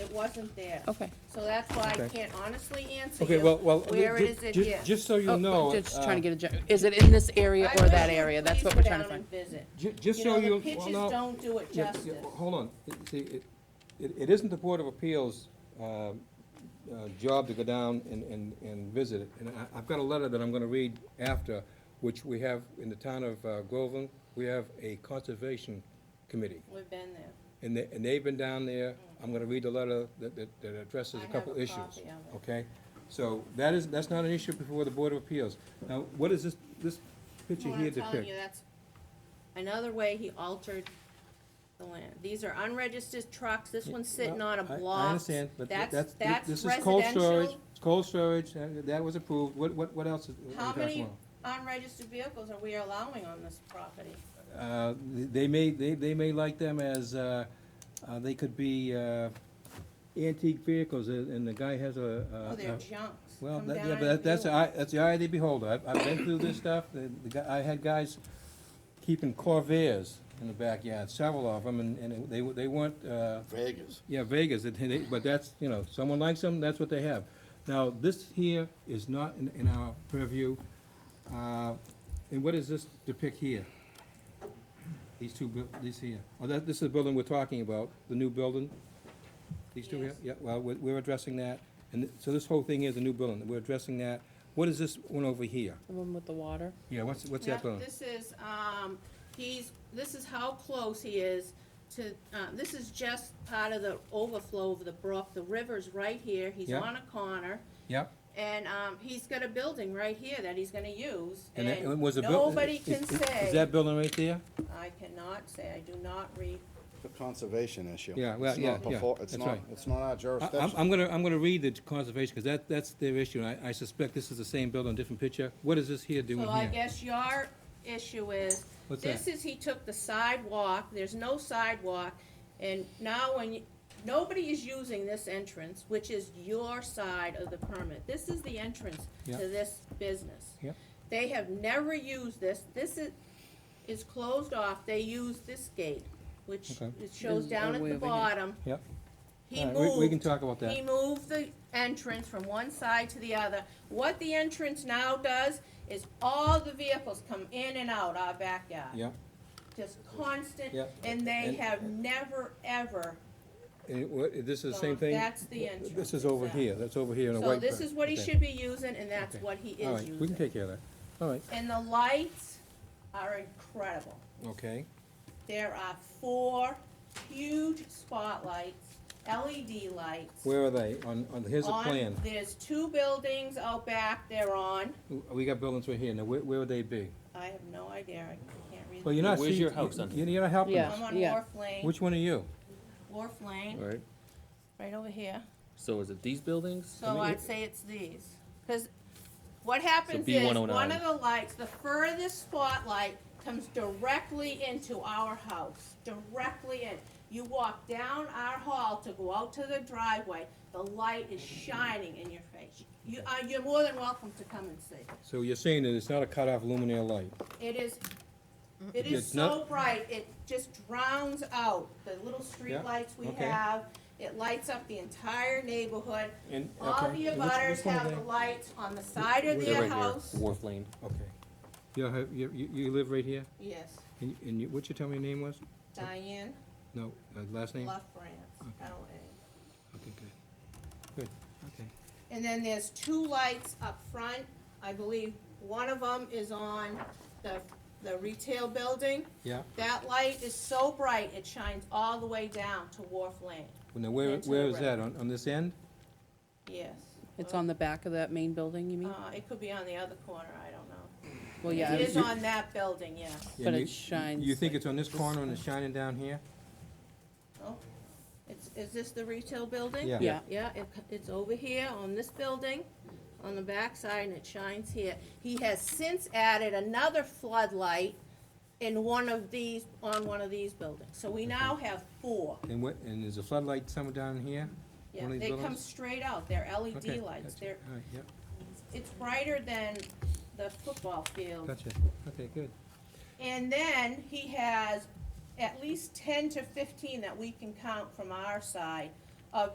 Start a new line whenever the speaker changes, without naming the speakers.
it wasn't there.
Okay.
So that's why I
Okay.
can't honestly answer
Okay,
you,
well, well.
where
ju-
is it
ju-
here?
Just so
Oh,
you know.
Just trying to
uh,
get a, gen- is it in this area
I
or
wish
that
you'd
area? That's
please
what
go
we're trying to
down
find.
and Visit.
ju- Just
You
so
know,
you.
the
well,
pictures
no.
don't do it
Yeah, yeah,
justice.
well, Hold on, It- see, it, it, it isn't the Board of Appeals, um, uh, job to go down and, and, and visit it. And I, I've got a letter that I'm gonna read after, which we have in the town of uh, Groveland, we have a conservation committee.
We've been there.
And they, and they've been down there, I'm gonna read the letter that, that, that addresses
I
a
have
couple
a
issues.
copy of it.
Okay, so that is, that's not an issue before the Board of Appeals. Now, what is this, this picture
Well,
here
Oh, I'm telling you,
depict?
that's another way he altered the land. These are unregistered trucks, this one's sitting on a
I-
block.
I understand, but th-
That's,
that's, thi-
that's
this is cold storage,
residential.
it's cold storage, and that was approved, what, what, what else is, what are
How
we talking
many
about?
unregistered vehicles are we allowing on this property?
Uh, th- they may, they, they may like them as, uh, uh, they could be, uh, antique vehicles, and and the guy has a, uh.
Oh, they're
a-
junks.
Well,
Come
that,
down
yeah,
and
but that- that's,
view
the eye- that's the eye of the beholder. I've, I've been through this stuff. The, the, guy- I had guys keeping Corvairs in the backyard, several of them, and, and it- they, were- they weren't, uh,
Vegas.
yeah, Vegas, it- they- but that's, you know, someone likes them, that's what they have. Now, this here is not in, in our purview. Uh, and what does this depict here? These two, buil- these here. Oh, that, this is the building we're talking about, the new building? These two here?
Yes.
Yeah, well, we're, we're addressing that. And th- so this whole thing is a new building, we're addressing that. What is this one over here?
The one with the water?
Yeah, what's, what's
Yeah,
that building?
This is, um, he's, this is how close he is to, uh, this is just part of the overflow of the brook. The river's right here, he's
Yeah.
on a corner,
Yep,
and, um, he's got a building right here that he's gonna use,
and that, and
and
was a building?
nobody can
Is
say,
that building right there?
I cannot say, I do not read,
The conservation issue.
Yeah, well,
It's
yeah,
not
yeah,
before- It's
that's
not,
right.
it's not our
I- I'm,
jurisdiction.
I'm gonna, I'm gonna read the conservation, because that, that's their issue, and I, I suspect this is the same building, different picture. What is this here doing
So I
here?
guess your issue is,
What's
this
that?
is, he took the sidewalk, there's no sidewalk, and now when, you- nobody is using this entrance, which is your side of the permit. This is the entrance to
Yeah.
this business.
Yeah.
They have never used this, this is, is closed off, they use this gate, which
Okay.
it shows
Is
down
all
at
the way
the
over here.
bottom.
Yep.
He
All right, we- We can
moved
talk about that.
he moved the entrance from one side to the other. What the entrance now does is all the vehicles come in and out our backyard.
Yep,
Just constant,
Yep.
and they
And-
have never, ever.
and it wa- this is the same
gone.
thing?
That's the entrance.
This is over
exactly.
here, that's over here in a white.
So this
bird.
is what he
Okay.
should be using, and that's
Okay.
what he
All
is
right, we can
using.
take care of that. All right,
And the lights are incredible.
okay,
There are four huge spotlights, LED lights.
where are they? On, on, here's a
on-
plan.
There's two buildings out back they're on.
We got buildings right here, now where, where would they be?
I have no idea, I can't read.
Well, you're not.
Where's
see-
your house on
you- You're not helping
Yeah.
us.
I'm on
Yeah.
Wharf Lane,
Which one are you?
Wharf Lane,
Right.
right over here.
So is it these buildings?
So I'd say it's these, because what happens is,
B109.
one of the lights, the furthest spotlight comes directly into our house, directly in. You walk down our hall to go out to the driveway, the light is shining in your face. You, uh, you're more than welcome to come and see.
So you're saying that it's not a cut-off luminaire light?
It is, it is
It's not-
so bright, it just drowns out the little street lights we
okay.
have. It lights up the entire neighborhood,
And-
All
okay.
the
Which-
abutters
which one are
have
they?
the lights on the side of
They're
their
right here,
house.
Wharf Lane.
Okay. You, have- you, you you live right here?
Yes,
And and you, what you tell me your name was?
Diane
No, uh, last name?
Left Brands, LA.
Okay, good. Good, okay.
And then there's two lights up front. I believe one of them is on the, the retail building.
Yeah,
That light is so bright, it shines all the way down to Wharf Lane.
now where,
Into the
where is
road.
that, on, on this end?
Yes.
It's on the back of that main building, you
Uh,
mean?
it could be on the other corner, I don't know.
Well, Oh, yeah.
It is
I-
on that building, yes.
Yeah,
But
you-
it shines
You think it's on this corner and it's shining down here?
Oh, It's, is this the retail building?
Yeah.
Yeah.
Yeah, it, it's over here on this building, on the backside, and it shines here. He has since added another floodlight in one of these, on one of these buildings, so we now have four.
And what, and there's a floodlight somewhere down here?
Yeah,
One of these
they come
buildings?
straight out, they're
Okay,
LED lights,
gotcha.
they're,
All right, yep,
it's brighter than the football field.
gotcha, okay, good.
And then he has at least ten to fifteen that we can count from our side of